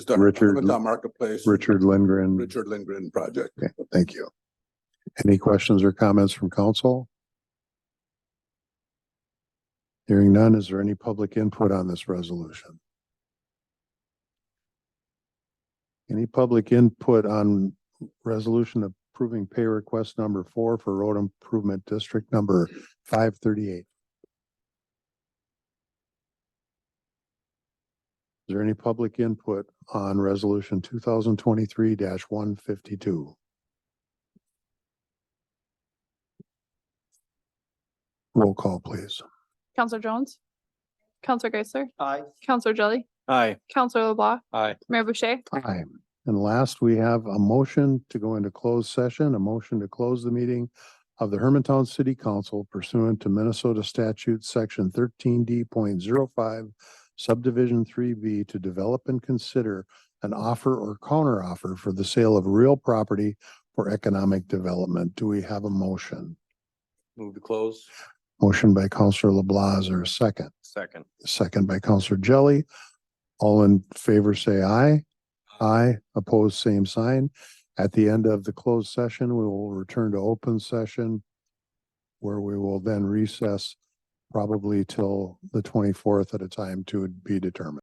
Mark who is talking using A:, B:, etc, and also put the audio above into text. A: the
B: Richard-
A: Armathon Marketplace,
B: Richard Lindgren.
A: Richard Lindgren project.
B: Okay, thank you. Any questions or comments from council? Hearing none, is there any public input on this resolution? Any public input on resolution approving pay request number four for road improvement district number five thirty-eight? Is there any public input on resolution two thousand twenty-three one fifty-two? Roll call, please.
C: Counselor Jones? Counselor Geisler?
D: Aye.
C: Counselor Jelly?
D: Aye.
C: Counselor LeBlanc?
D: Aye.
C: Mayor Boucher?
B: Aye. And last, we have a motion to go into closed session, a motion to close the meeting of the Hermantown City Council pursuant to Minnesota statute section thirteen d05 subdivision three B to develop and consider an offer or counteroffer for the sale of real property for economic development. Do we have a motion?
D: Move to close.
B: Motion by Counselor LeBlanc, is there a second?
D: Second.
B: second by Counselor Jelly. All in favor, say aye. Aye, opposed, same sign. At the end of the closed session, we will return to open session where we will then recess probably till the twenty-fourth at a time to be determined.